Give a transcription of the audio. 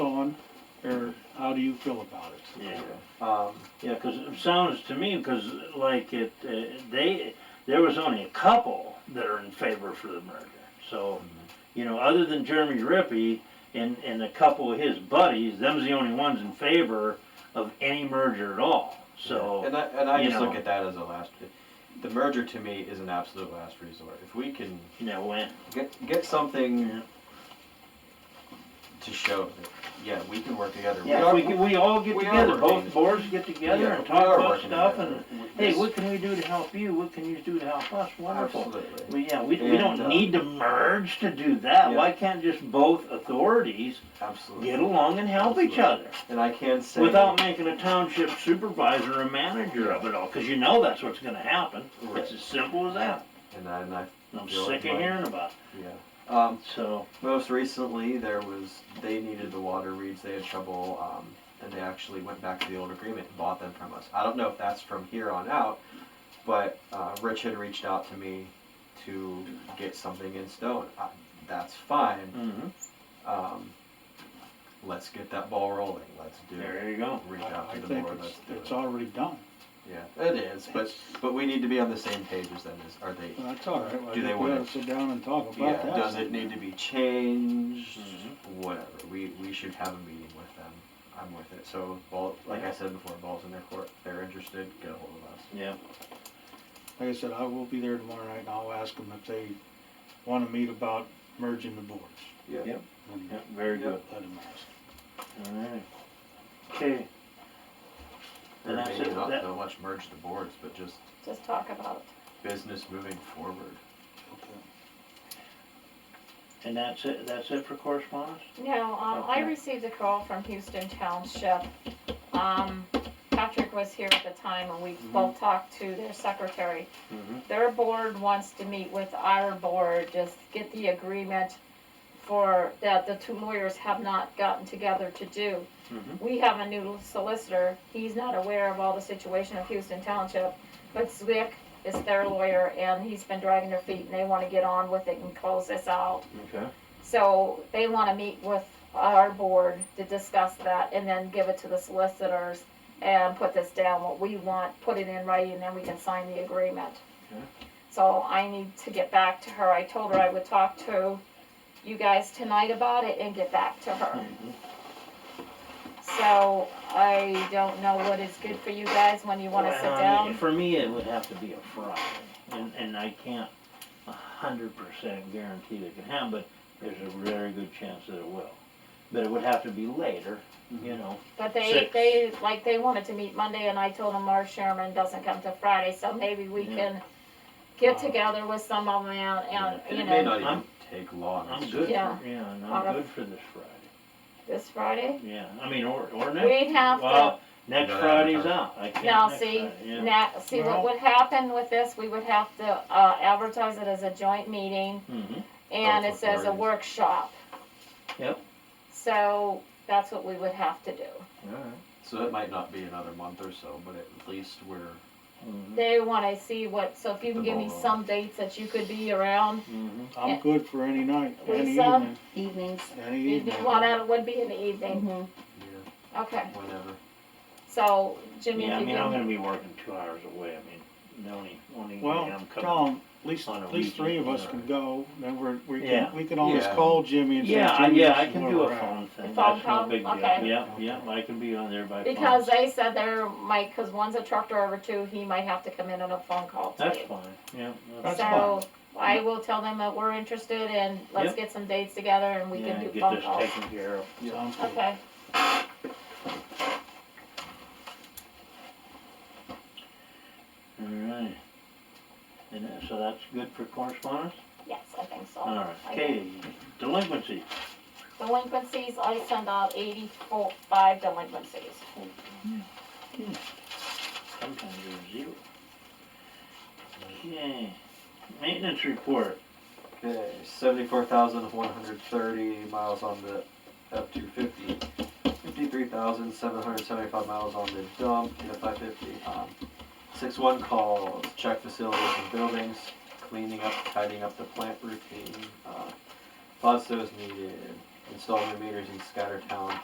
how do you feel about it? Yeah. Um, Yeah, 'cause it sounds to me, 'cause like it, uh, they, there was only a couple that are in favor for the merger. So, you know, other than Jeremy Rippey and, and a couple of his buddies, them's the only ones in favor of any merger at all, so. and I, and I you just look know. at that as a last, the merger to me is an absolute last resort. If we can You know, when, get, get something Yeah. to show that, yeah, we can work together. yeah, if we, can- we all get we are together, working. both boards get together Yeah, and we are talk about working stuff together. and, W- hey, this- what can we do to help you? What can you do to help us? Wonderful. Absolutely. We, yeah, we, we And, uh, don't need to merge to do that. Yeah. Why can't just both authorities Absolutely. get along and help each other? And I can say. Without making a township supervisor a manager of it all, cause you know that's what's gonna happen. Right. It's as simple as that. And I, and I, And I'm You're sick of right. hearing about yeah. Um, it, so, most recently, there was, they needed the water reeds, they had trouble, um, and they actually went back to the old agreement and bought them from us. I don't know if that's from here on out, but, uh, Rich had reached out to me to get something in stone. I, that's fine, mhm, um, let's get that ball rolling, let's do it. there you go. Reach out I I to the think board, it's, let's do it's it. already done. Yeah, it is, but, but we need to be on the same page as them, is, are they, Well, That's all right. I Do they think wanna- We ought to sit down and talk Yeah, about that. does it need to be changed? Mhm. Whatever. We, we should have a meeting with them. I'm with it. So ball, like I said before, balls in their court. If they're interested, get a hold of us. Yeah, Like I said, I will be there tomorrow night and I'll ask them if they wanna meet about merging the boards. Yeah. And yeah, very Yeah. good, Let them ask. alright. Okay. Or And that's maybe it, not that- so much merge the boards, but just Just talk about business moving forward. Okay. And that's it, that's it for correspondence? it. No, um, I Okay. received a call from Houston Township. Um, Patrick was here at the time and we both talked to their secretary. Mm-hmm. Their board wants to meet with our board, just get the agreement for, that the two lawyers have not gotten together to do. Mhm. We have a new solicitor, he's not aware of all the situation of Houston Township, but Zwick is their lawyer and he's been dragging their feet and they wanna get on with it and close this out. Okay. So they want to meet with our board to discuss that and then give it to the solicitors and put this down, what we want, put it in writing, and then we can sign the agreement. Okay. So I need to get back to her. I told her I would talk to you guys tonight about it and get back to her. Hmm. Mm-hmm. So I don't know what is good for you guys when you want to Well, sit I mean, down. For me, it would have to be a Friday, and, and I can't a hundred percent guarantee that it can happen, but there's a very good chance that it will. But it would have to be later, Mm-hmm. you know, But they, Six. they, like, they wanted to meet Monday, and I told them our chairman doesn't come till Friday, so maybe we Yeah. can get Wow. together with some of them and, And and, you it may know, not even I'm- take long. I'm It's good, for- yeah, Yeah. and Alright. I'm good for this Friday, this Friday. yeah, I mean, or, or next. We'd have to, Well, next No, no, Friday's no. out, I can't now, next see, Friday, yeah. now, see what Well- would happen with this, we would have to, uh, advertise it as a joint meeting, Mhm. and Both it says a authorities. workshop. Yep. So, that's what we would have to do. Alright. So it might not be another month or so, but at least we're Mhm. They wanna see what, so if you can The give me ball rolls. some dates that you could be around, Mhm. I'm Yeah. um, good for any night, any Lisa? evening, evenings. any evening. evening, well, that would be in the evening, Mhm. yeah, okay. whenever. So, Yeah, Jimmy, if I you mean, I'm can, gonna be working two hours away, I mean, the only, only way Well, I'm coming. Tom, at least, on a at least three of weekend us or- can go, then we're, we Yeah. can, we can always Yeah. call Jimmy and say, Yeah, I- Jimmy, yeah, I this is can where do we're a at." phone thing, phone that's call? no big deal, Okay. yeah, yeah, I can be on there by phone. because they said there might, cause one's a truck driver too, he might have to come in on a phone call too. That's fine, yeah, that's, That's So, I will tell them that we're interested and let's Yep. get some dates together and we yeah, can do get phone this calls. taken care of. Sounds good. Okay, Alright. And that- so that's good for correspondence? yes, I think so. Alright, Oh, I okay, delinquency, Delinquencies, I send out eighty-four, five delinquencies. sometimes there's zero. Okay, maintenance report, Okay, seventy-four thousand one hundred thirty miles on the F two fifty. Fifty-three thousand seven hundred seventy-five miles on the dump, the five fifty. Um, six one calls, check facilities and buildings, cleaning up, tidying up the plant routine. Uh, Plasto's needed, installing the meters in Scattertown,